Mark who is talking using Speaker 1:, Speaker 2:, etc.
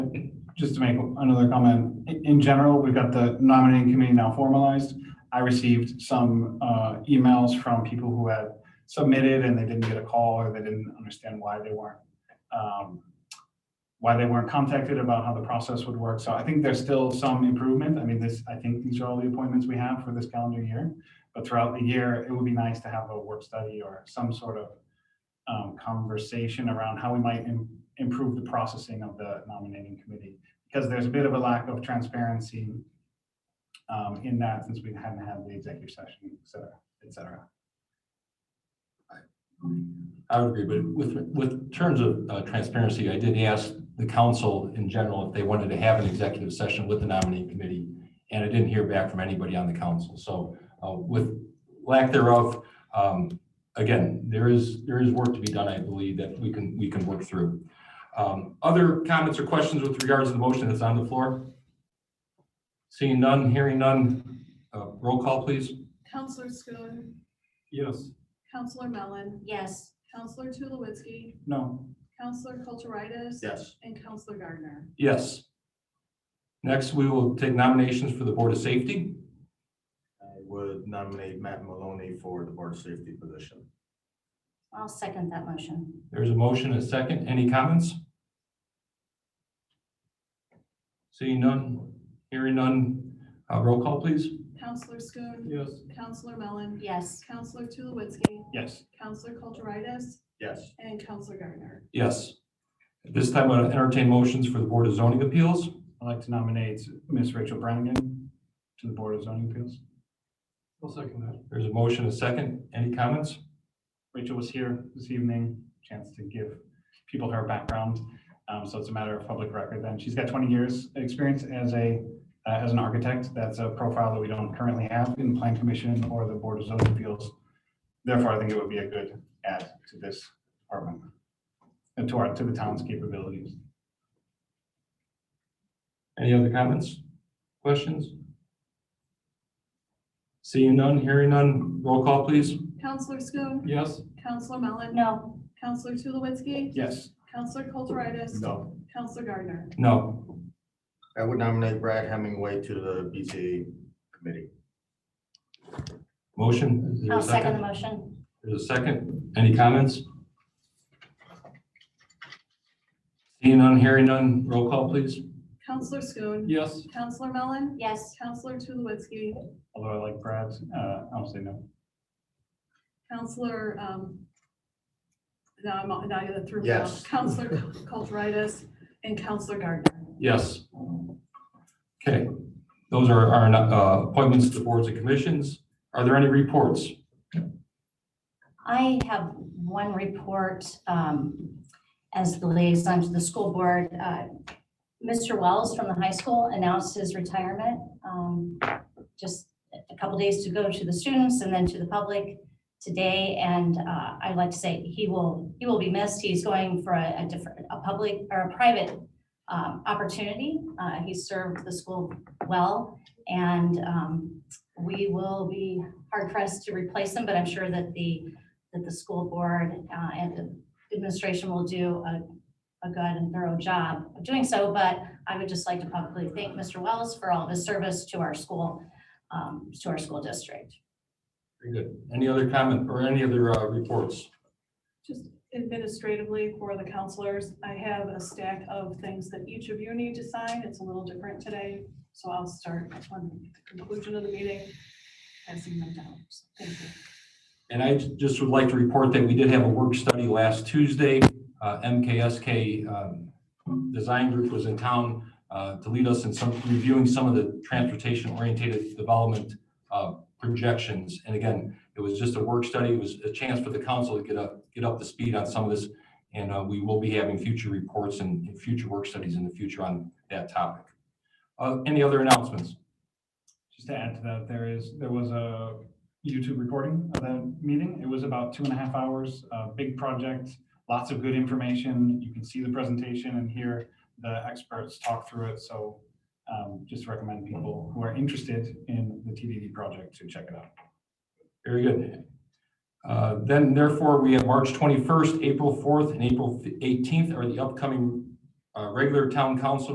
Speaker 1: just to make another comment, in, in general, we've got the nominating committee now formalized. I received some, uh, emails from people who had submitted and they didn't get a call or they didn't understand why they weren't, um, why they weren't contacted about how the process would work. So I think there's still some improvement. I mean, this, I think these are all the appointments we have for this calendar year. But throughout the year, it would be nice to have a work study or some sort of, um, conversation around how we might im- improve the processing of the nominating committee because there's a bit of a lack of transparency um, in that since we haven't had the executive session, et cetera, et cetera.
Speaker 2: I would agree, but with, with terms of uh, transparency, I did ask the council in general if they wanted to have an executive session with the nominating committee, and I didn't hear back from anybody on the council. So uh, with lack thereof, um, again, there is, there is work to be done, I believe, that we can, we can work through. Um, Other comments or questions with regards to the motion that's on the floor? Seeing none, hearing none, uh, roll call, please.
Speaker 3: Counselor Schoen,
Speaker 2: Yes.
Speaker 3: Counselor Mellon,
Speaker 4: Yes,
Speaker 3: Counselor Tulowitzki,
Speaker 1: No,
Speaker 3: Counselor Kulturitis.
Speaker 2: Yes.
Speaker 3: And Counselor Gardner.
Speaker 2: Yes. Next, we will take nominations for the Board of Safety.
Speaker 5: I would nominate Matt Maloney for the Board of Safety position.
Speaker 4: I'll second that motion.
Speaker 2: There's a motion, a second. Any comments? Seeing none, hearing none. Uh, Roll call, please.
Speaker 3: Counselor Schoen,
Speaker 2: Yes.
Speaker 3: Counselor Mellon,
Speaker 4: Yes,
Speaker 3: Counselor Tulowitzki,
Speaker 1: yes,
Speaker 3: Counselor Kulturitis,
Speaker 5: Yes,
Speaker 3: and Counselor Gardner.
Speaker 2: Yes. At this time, I'll entertain motions for the Board of Zoning Appeals.
Speaker 1: I'd like to nominate Miss Rachel Brannigan to the Board of Zoning Appeals.
Speaker 2: I'll second that. There's a motion, a second. Any comments?
Speaker 1: Rachel was here this evening, chance to give people her background. Um, so it's a matter of public record then. She's got twenty years experience as a, uh, as an architect. That's a profile that we don't currently have in Plan Commission or the Board of Zoning Appeals. Therefore, I think it would be a good add to this department and to our, to the town's capabilities.
Speaker 2: Any other comments? Questions? Seeing none, hearing none. Roll call, please.
Speaker 3: Counselor Schoen,
Speaker 2: Yes.
Speaker 3: Counselor Mellon,
Speaker 4: no,
Speaker 3: Counselor Tulowitzki,
Speaker 1: Yes,
Speaker 3: Counselor Kulturitis,
Speaker 5: no.
Speaker 3: Counselor Gardner.
Speaker 2: No.
Speaker 5: I would nominate Brad Hemingway to the BZA committee.
Speaker 2: Motion? Is there a
Speaker 4: I'll second the motion.
Speaker 2: There's a second. Any comments? Seeing none, hearing none, roll call, please.
Speaker 3: Counselor Schoen,
Speaker 2: Yes.
Speaker 3: Counselor Mellon,
Speaker 4: Yes,
Speaker 3: Counselor Tulowitzki,
Speaker 1: although I like Brad, uh, I'll say no.
Speaker 3: Counselor, um, now I'm, now you're through.
Speaker 5: Yes.
Speaker 3: Counselor Kulturitis and Counselor Gardner.
Speaker 2: Yes. Okay, those are our uh, appointments to the boards and commissions. Are there any reports?
Speaker 4: I have one report um, as the liaison to the school board. Uh, Mr. Wells from the high school announced his retirement um, just a couple days to go to the students and then to the public today. And uh, I'd like to say he will, he will be missed. He's going for a a different, a public or a private um, opportunity. Uh, He served the school well and um, we will be hard pressed to replace them, but I'm sure that the, that the school board uh, and the administration will do a, a good and thorough job of doing so, but I would just like to publicly thank Mr. Wells for all of his service to our school, um, to our school district.
Speaker 2: Very good. Any other comment or any other uh, reports?
Speaker 3: Just administratively for the counselors, I have a stack of things that each of you need to sign. It's a little different today. So I'll start on the conclusion of the meeting. Passing them down. Thank you.
Speaker 2: And I ju- just would like to report that we did have a work study last Tuesday. Uh, MKSK um, Design Group was in town uh, to lead us in some, reviewing some of the transportation-oriented development uh, projections. And again, it was just a work study, it was a chance for the council to get up, get up to speed on some of this. And uh, we will be having future reports and and future work studies in the future on that topic. Uh, Any other announcements?
Speaker 1: Just to add to that, there is, there was a YouTube recording of that meeting. It was about two and a half hours, a big project, lots of good information. You can see the presentation and hear the experts talk through it. So um, just recommend people who are interested in the TDD project to check it out.
Speaker 2: Very good. Uh, Then therefore, we have March 21st, April 4th, and April 18th are the upcoming uh, regular town council